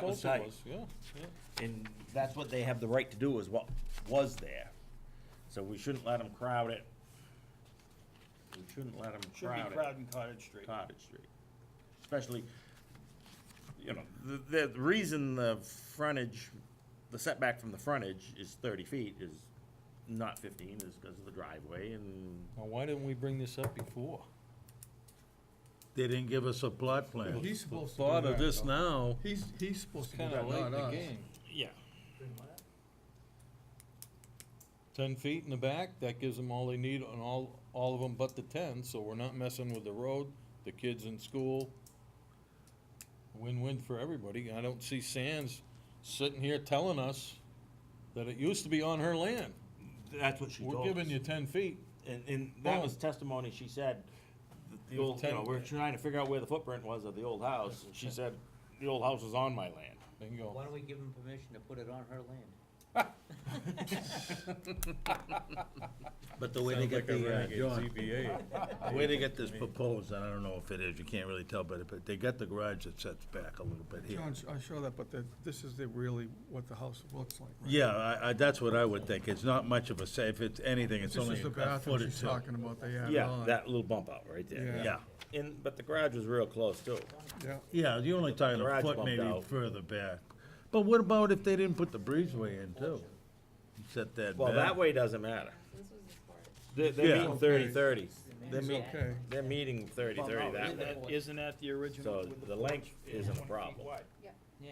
That was Bolton tight. was, Yeah, yeah. And that's what they have the right to do, is what was there. So we shouldn't let them crowd it. We shouldn't let them Should be crowd Crowden Cottage Street. it, Cottage Street. Especially, you know, the, the reason the frontage, the setback from the frontage is thirty feet is not fifteen, is because of the driveway and Now, why didn't we bring this up before? They didn't give us a plot plan. He's supposed to Thought do of that, this though. now, He's, he's supposed to do Kinda that, late in not the us. game. Yeah. Ten feet in the back, that gives them all they need on all, all of them but the ten, so we're not messing with the road, the kids in school. Win-win for everybody. I don't see Sands sitting here telling us that it used to be on her land. That's what she told us. We're giving you ten feet. And, and that Well- was testimony, she said, that the With old, you know, ten- we're trying to figure out where the footprint was of the old house, and she said, the old house is on my land. Bingo. Why don't we give him permission to put it on her land? but the way they get the, uh, John, the way they get this proposed, and I don't know if it is, you can't really tell, but, but they got the garage that sets back a little bit here. John, I show that, but the- this is the really what the house looks like. right? Yeah, I, I, that's what I would think, it's not much of a say, if it's anything, it's This only is the a bathroom foot or she's two. talking about, they added Yeah, on. that little bump out right there, Yeah. Yeah, yeah. And, but the garage was real close too. Yeah, yeah, you're only talking a Garage foot bumped maybe out. further back. But what about if they didn't put the breezeway in too? Set that back. Well, that way doesn't matter. This was his part. They're, they're Yeah. meeting thirty thirty. They're it's meeting, okay. they're meeting thirty thirty that way, Isn't that the original? so the length isn't a problem. Yeah.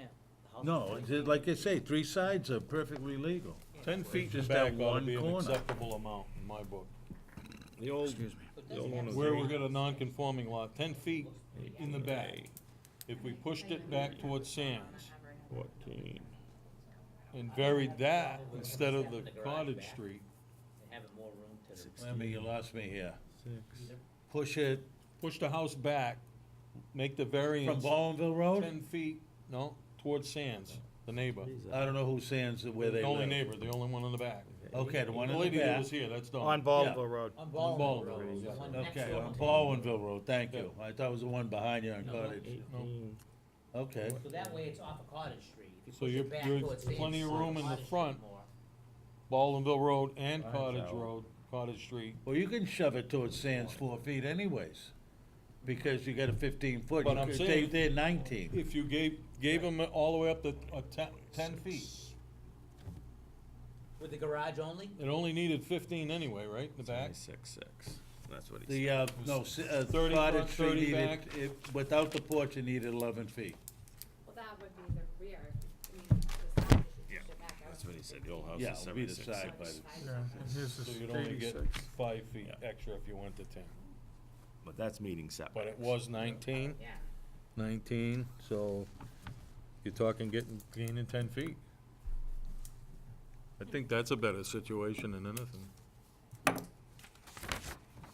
No, it's like I say, three sides are perfectly legal. Ten feet in the Just back that ought to one be an corner. acceptable amount in my book. The old, But the old doesn't one have was. Where we got a non-conforming lot, ten feet in the back. If we pushed it back towards Sands Fourteen. and varied that instead of the cottage street, to have more room to. Lemmy, you lost me here. Push it push the house back, make the from variance Ballinville Road? ten feet, no, towards Sands, the neighbor. I don't know who sands it where they The live. only neighbor, the only one in the back. Okay, the one The in the lady that back. was here, that's On Dawn. Baldwin Road. On Ballroom, Ballroom Road, yeah. the one next Okay, door on to- Ballinville Road, thank you. I thought it was the one behind you on Cottage. Okay, So that way it's off of Cottage Street. If you So push it you're- back you're towards the plenty of inside room in the Cottage Street front. more. Ballinville Road and Mine's Cottage out. Road, Cottage Street. well, you can shove it towards sands four feet anyways, because you got a fifteen foot. But You I'm could- saying- They, they're nineteen. If you gave, gave them all the way up to, uh, ten, ten feet, With the garage only? it only needed fifteen anyway, right, in the back? Six, six, that's what he The, uh, no, s- uh, 30 Cottage front, Street 30 needed, back. it, without the porch, it needed eleven feet. Well, that would be the rear, I mean, the side, if you Yeah, pushed it back out. That's what he said, the old house Yeah, is it'll be the seventy-six, side by Side the, by yeah, side. and here's So this you'd only get eighty-six. five feet Yeah. extra if you went to ten, but that's meeting setback. but it was nineteen. Yeah. Nineteen, so you're talking getting, gaining ten feet. I think that's a better situation than anything.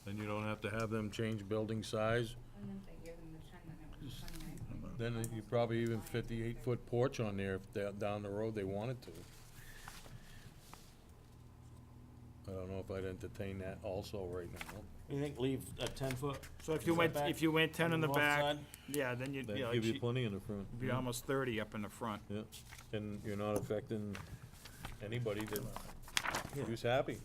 Then you don't have to have them change building size, And then they give him the ten, then it was twenty-nine. then you probably even fifty-eight foot porch on there if they're down the road they wanted to. I don't know if I'd entertain that also right now. You think leave a ten foot? So if you went, Setback if you went ten in the north back, side? yeah, then you'd, yeah, That'd give you you'd plenty in the front. be almost thirty up in the front. Yeah, and you're not affecting anybody that, who's happy.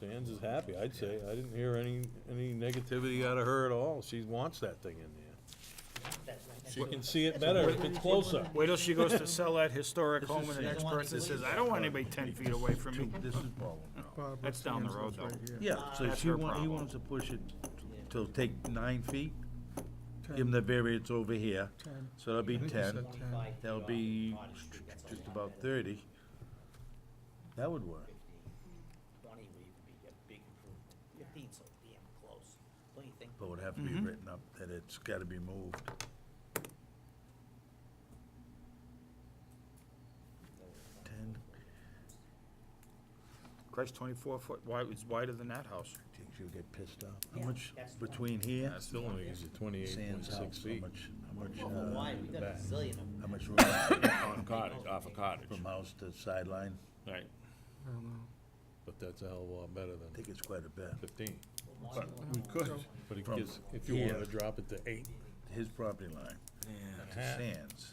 Sands is happy, I'd say. I didn't hear any, any negativity out of her at all. She wants that thing in there. That's right next She door. can see it better if it's closer. Wait till she goes to sell that historic This home is and the the- next person This says, is I don't want anybody ten feet away from me. this is Baldwin. Barbara That's down the Sands road, lives right here. though. Yeah, so That's she her want, he problem. wants to push it to take nine feet, give him the variance over here, Ten. so that'll be I think you ten, said Twenty-five that'll feet off be Cottage Street, that's all just we about have. thirty. That would work. Twenty would even be a big improvement. Fifteen's so damn close. Don't you think? But it would have to be written up that it's gotta be moved. Ten, Christ, twenty-four foot wide, it's wider than that house. I think she'll get pissed off. How Yeah, much that's fine. between here, Still only gives you and twenty-eight point Sands six house, how feet. much, how much, Well, uh, why? We got a back? zillion of them. how much room On cottage, off a cottage, from house to sideline? right. I don't know. But that's a hell of a lot better I than think it's quite a bit. fifteen. We could. But it From gives, if you wanted here. to drop it to eight, His property line to Sands.